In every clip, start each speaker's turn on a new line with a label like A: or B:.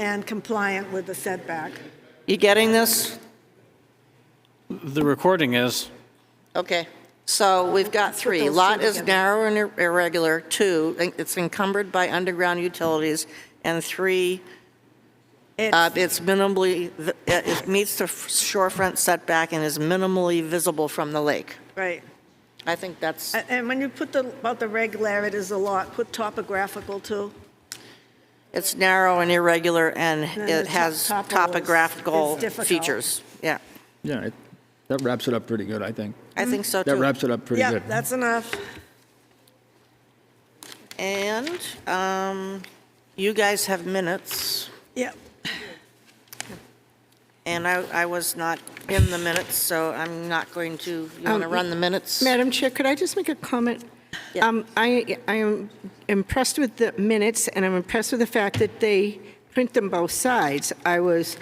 A: and compliant with the setback.
B: You getting this?
C: The recording is,
B: Okay, so we've got three.
A: those two
B: Lot is
A: together.
B: narrow and ir- irregular, two, it's encumbered by underground utilities, and three, uh,
A: It's-
B: it's minimally, vi- uh, it meets the f- shorefront setback and is minimally visible from the lake.
A: Right.
B: I think that's,
A: A- And when you put the, about the regularities a lot, put topographical too.
B: it's narrow and irregular, and
A: Then the
B: it
A: top-
B: has
A: topo is-
B: topographical
A: is difficult.
B: features. Yeah,
D: Yeah, it- that wraps it up pretty good, I think.
B: I think so too.
D: That wraps it up pretty
A: Yeah,
D: good.
A: that's enough.
B: And um, you guys have minutes.
A: Yeah.
B: And I, I was not in the minutes, so I'm not going to, you want to
E: Um,
B: run the minutes?
E: Madam Chair, could I just make a comment?
B: Yeah.
E: Um, I, I am impressed with the minutes, and I'm impressed with the fact that they print them both sides. I was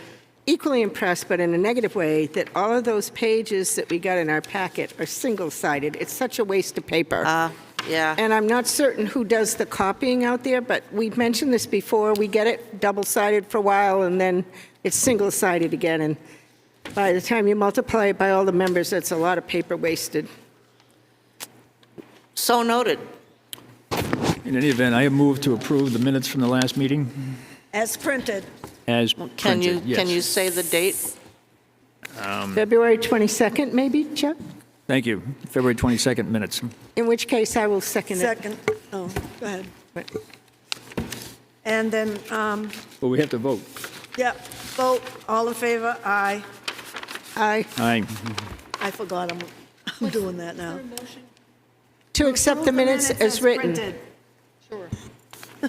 E: equally impressed, but in a negative way, that all of those pages that we got in our packet are single-sided. It's such a waste of paper.
B: Uh, Yeah,
E: And I'm not certain who does the copying out there, but we've mentioned this before. We get it double-sided for a while, and then it's single-sided again. And by the time you multiply it by all the members, that's a lot of paper wasted.
B: so noted.
D: In any event, I have moved to approve the minutes from the last meeting
A: As printed.
D: as
B: Can you,
D: printed,
B: can you
D: yes.
B: say the date?
E: February 22nd, maybe, Chuck?
D: Thank you. February 22nd minutes.
E: In which case, I will second it.
A: Second, oh, go ahead. And then, um,
D: But we have to vote.
A: yeah, vote, all in favor, aye.
E: Aye.
D: Aye.
A: I forgot, I'm, I'm doing that now.
E: To accept the minutes as written.
B: We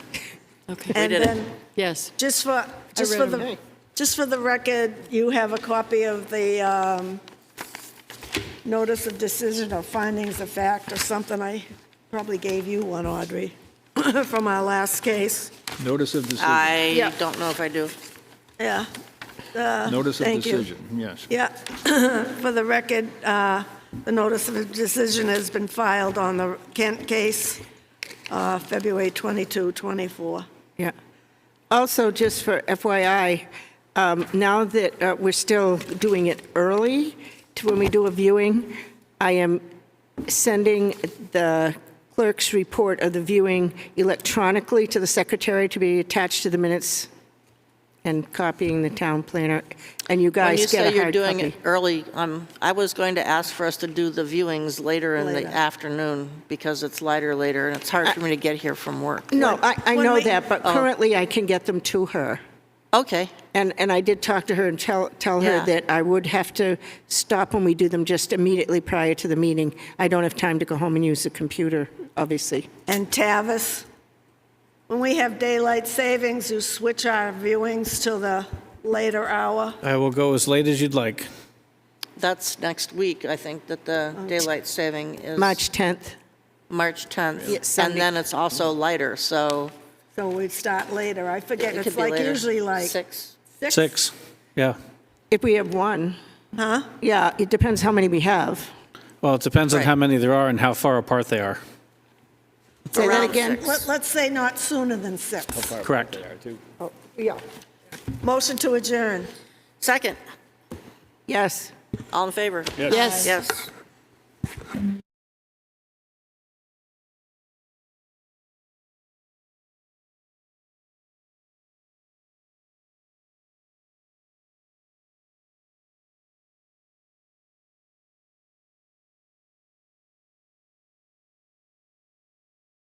A: And
B: did it.
A: then,
F: Yes.
A: just for, just for
E: read 'em.
A: the, just for the record, you have a copy of the um, notice of decision or findings of fact or something. I probably gave you one, Audrey, from our last case.
D: Notice of decision.
B: I
E: Yeah.
B: don't know if I do.
A: Yeah,
D: Notice of
A: thank you.
D: decision, yes.
A: yeah. For the record, uh, the notice of decision has been filed on the Kent case, uh, February 22, 24.
E: Yeah. Also, just for FYI, um, now that uh, we're still doing it early to when we do a viewing, I am sending the clerk's report of the viewing electronically to the secretary to be attached to the minutes and copying the town planner. And you
B: When you
E: guys
B: say
E: get a
B: you're
E: hard
B: doing
E: copy.
B: it early, um, I was going to ask for us to do the viewings later in the
A: Later.
B: afternoon because it's lighter later and it's hard for me to get here from work.
E: No, I, I
A: when
E: know
A: we-
E: that, but
B: Oh.
E: currently I can get them to her.
B: Okay,
E: And, and I did talk to her and tell, tell her
B: Yeah.
E: that I would have to stop when we do them just immediately prior to the meeting. I don't have time to go home and use the computer, obviously.
A: And Tavis, when we have daylight savings, you switch our viewings to the later hour.
C: I will go as late as you'd like.
B: that's next week, I think, that the daylight saving is.
E: March 10th.
B: March 10th.
E: Yeah,
B: And
E: Sunday.
B: then it's also lighter, so
A: So we'd start later. I forget,
B: it could
A: it's
B: be
A: like
B: later.
A: usually like,
B: Six.
C: Six, yeah.
E: If we have one. Huh? Yeah, it depends how many we have.
C: Well, it depends on
B: Right.
C: how many there are and how far apart they are.
E: Say that
B: Around
E: again.
B: six.
A: let- let's say not sooner than six.
C: Correct.
E: Yeah.
A: Motion to adjourn.
B: Second,
E: Yes.
B: all in favor?
F: Yes.
B: Yes.